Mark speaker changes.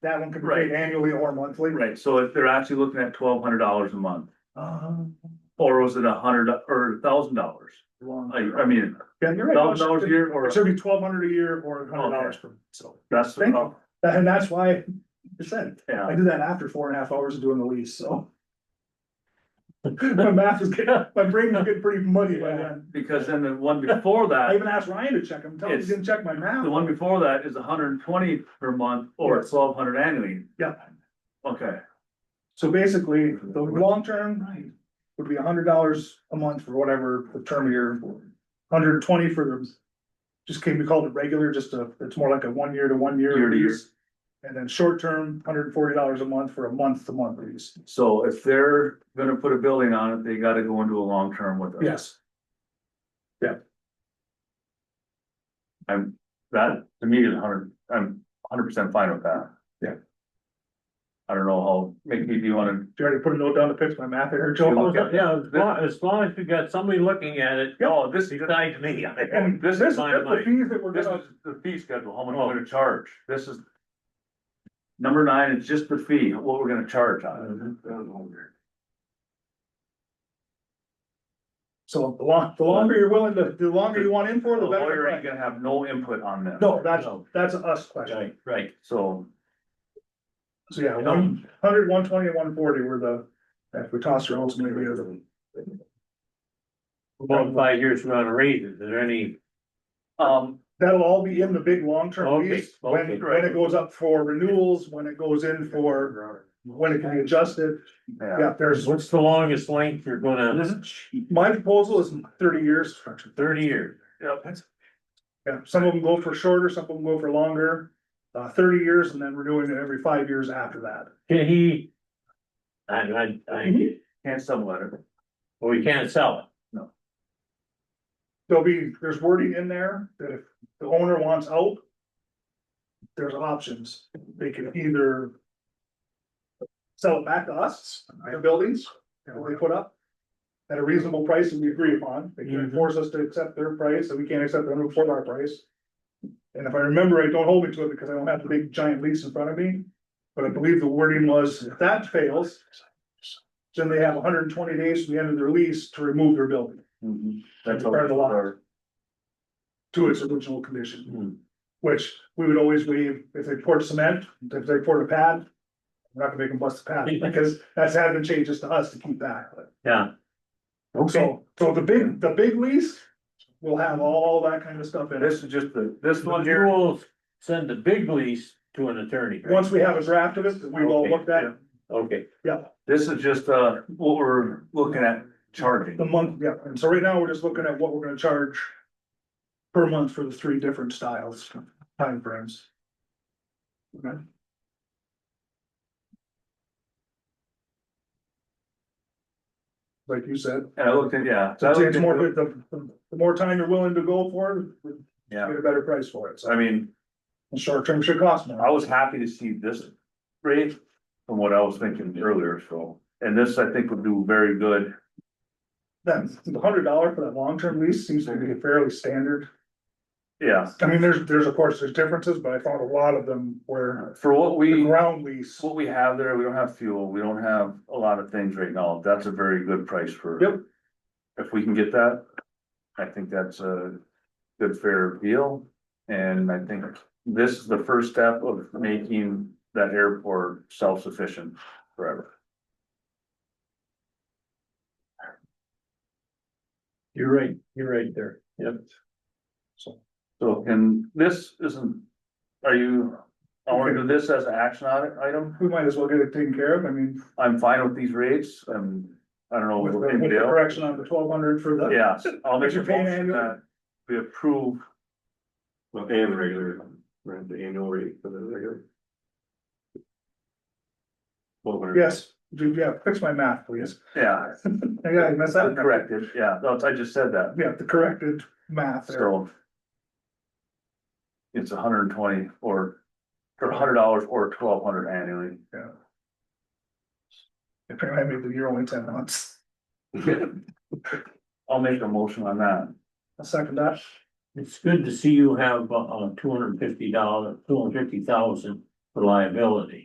Speaker 1: that one could be paid annually or monthly.
Speaker 2: Right, so if they're actually looking at twelve hundred dollars a month,
Speaker 1: Uh,
Speaker 2: or was it a hundred or a thousand dollars? I, I mean,
Speaker 1: yeah, you're right.
Speaker 2: thousand dollars a year or,
Speaker 1: It should be twelve hundred a year or hundred dollars per, so,
Speaker 2: that's,
Speaker 1: Thank you.
Speaker 2: oh,
Speaker 1: and that's why, percent, I
Speaker 2: yeah,
Speaker 1: did that after four and a half hours of doing the lease, so. My math is getting, my brain was getting pretty muddy by then.
Speaker 2: because then the one before
Speaker 1: I
Speaker 2: that,
Speaker 1: even asked Ryan to check them, tell him he
Speaker 2: It's-
Speaker 1: didn't check my math.
Speaker 2: the one before that is hundred and twenty per month or
Speaker 1: Yes.
Speaker 2: twelve hundred annually.
Speaker 1: Yeah.
Speaker 2: Okay,
Speaker 1: So basically, the long term would be hundred dollars a month for whatever the term of year, hundred twenty for the. Just can be called it regular, just a, it's more like a one year to one
Speaker 2: Year
Speaker 1: year
Speaker 2: to year.
Speaker 1: lease. And then short term, hundred and forty dollars a month for a month to month lease.
Speaker 2: so if they're gonna put a building on it, they gotta go into a long term with us.
Speaker 1: Yes.
Speaker 2: I'm, that, to me, is hundred, I'm hundred percent fine with that.
Speaker 1: Yeah.
Speaker 2: I don't know how, make me, do you wanna
Speaker 1: Did you already put a note down to fix my math there,
Speaker 2: look
Speaker 1: Joe?
Speaker 2: at-
Speaker 3: Yeah, as long, as long as we got somebody looking at it
Speaker 2: No, oh, this is,
Speaker 3: besides me.
Speaker 1: And
Speaker 2: this
Speaker 1: this is
Speaker 2: is
Speaker 1: that's
Speaker 3: my
Speaker 1: the Oh.
Speaker 3: money.
Speaker 1: fees that we're
Speaker 2: this
Speaker 1: gonna,
Speaker 2: is the fee schedule, how much we're gonna charge, this is. Number nine is just the fee, what we're gonna charge on
Speaker 1: so the long, the longer you're willing to, the longer you want in
Speaker 2: it.
Speaker 1: for,
Speaker 2: The
Speaker 1: the
Speaker 2: lawyer ain't
Speaker 1: better.
Speaker 2: gonna have no input on this.
Speaker 1: No, that's, that's an us question.
Speaker 3: Right, right.
Speaker 2: So,
Speaker 1: So yeah, one hundred, one twenty, and one forty were the, if we toss our ultimate, we have the.
Speaker 3: About five years we're gonna raise it. Is there any,
Speaker 2: um,
Speaker 1: That'll all be in the big long-term
Speaker 3: Okay,
Speaker 1: lease,
Speaker 3: okay.
Speaker 1: when, when it goes up for renewals, when it goes in for, when it can be adjusted.
Speaker 2: yeah,
Speaker 1: Yeah, Mm-hmm. there's,
Speaker 3: what's the longest length you're gonna,
Speaker 1: my proposal is thirty years.
Speaker 3: thirty years?
Speaker 1: Yeah, some of them go for shorter, some of them go for longer, uh, thirty years and then renewing it every five years after that.
Speaker 3: Can he? I, I, I,
Speaker 1: Mm-hmm.
Speaker 2: can't sublet it,
Speaker 3: well, we can't sell it.
Speaker 1: There'll be, there's wording in there that if the owner wants out. There's options, they can either. Sell it back to us, the buildings, that we put up. At a reasonable price and we agree upon, they can
Speaker 3: Mhm.
Speaker 1: force us to accept their price, and we can't accept them before our price. And if I remember, right, don't hold me to it because I don't have the big giant lease in front of me, but I believe the wording was, if that fails. Then they have hundred and twenty days from the end of their lease to remove their building
Speaker 2: that's.
Speaker 1: Burn Mm-hmm. the lot. Mm-hmm.
Speaker 2: all.
Speaker 1: to its original condition,
Speaker 3: Hmm.
Speaker 1: which we would always leave if they poured cement, if they poured a pad. We're not gonna make them bust the pad because that's having changes to us to keep that.
Speaker 3: Yeah. Okay,
Speaker 1: So, so the big, the big lease will have all that kind of stuff in
Speaker 2: This
Speaker 1: it.
Speaker 2: is just the, this one
Speaker 3: you
Speaker 2: here,
Speaker 3: will send the big lease to an attorney. right?
Speaker 1: Once we have a draft of it, that we've all looked at,
Speaker 3: Okay,
Speaker 1: yeah,
Speaker 2: this is just, uh, what we're looking at charging.
Speaker 1: the month, yeah, and so right now, we're just looking at what we're gonna charge. Per month for the three different styles, timeframes. Okay. Like you said.
Speaker 2: And I looked at, yeah. so I
Speaker 1: So
Speaker 2: looked
Speaker 1: it's more,
Speaker 2: into it.
Speaker 1: the, the, the more time you're willing to go for, it, you
Speaker 2: Yeah,
Speaker 1: get a better price for it,
Speaker 2: so I
Speaker 1: so,
Speaker 2: mean,
Speaker 1: and short term should cost more.
Speaker 2: I was happy to see this rate from what I was thinking earlier, so, and this I think would do very good.
Speaker 1: Then, the hundred dollar for that long term lease seems to be fairly standard,
Speaker 2: Yeah,
Speaker 1: I mean, there's, there's, of course, there's differences, but I found a lot of them where
Speaker 2: for what
Speaker 1: the
Speaker 2: we,
Speaker 1: ground lease.
Speaker 2: what we have there, we don't have fuel, we don't have a lot of things right now, that's a very good price for.
Speaker 1: Yep.
Speaker 2: If we can get that, I think that's a good fair deal, and I think this is the first step of making that airport self-sufficient forever.
Speaker 3: you're right, you're right there, yep.
Speaker 2: So, and this isn't, are you, I wanna do this as an action on item?
Speaker 1: We might as well get it taken care of, I mean,
Speaker 2: I'm fine with these rates, um, I don't know.
Speaker 1: with the
Speaker 2: what
Speaker 1: with the
Speaker 2: anybody else-
Speaker 1: correction on the twelve hundred for the,
Speaker 2: Yes, I'll make
Speaker 1: But
Speaker 2: a
Speaker 1: you're paying
Speaker 2: motion
Speaker 1: annual.
Speaker 2: that we approve.
Speaker 4: Well, and regular, right, the annual rate for the regular. Well, whatever.
Speaker 1: yes, do- yeah, fix my math, please.
Speaker 2: Yeah,
Speaker 1: Yeah, I messed that up.
Speaker 2: corrected, yeah, no, I just said that,
Speaker 1: Yeah, the corrected math there,
Speaker 2: so. It's hundred and twenty or, or hundred dollars or twelve hundred annually.
Speaker 1: I made the year only ten months,
Speaker 2: I'll make a motion on that.
Speaker 1: a second that.
Speaker 3: It's good to see you have uh two hundred and fifty dollar, two hundred and fifty thousand
Speaker 2: the liability.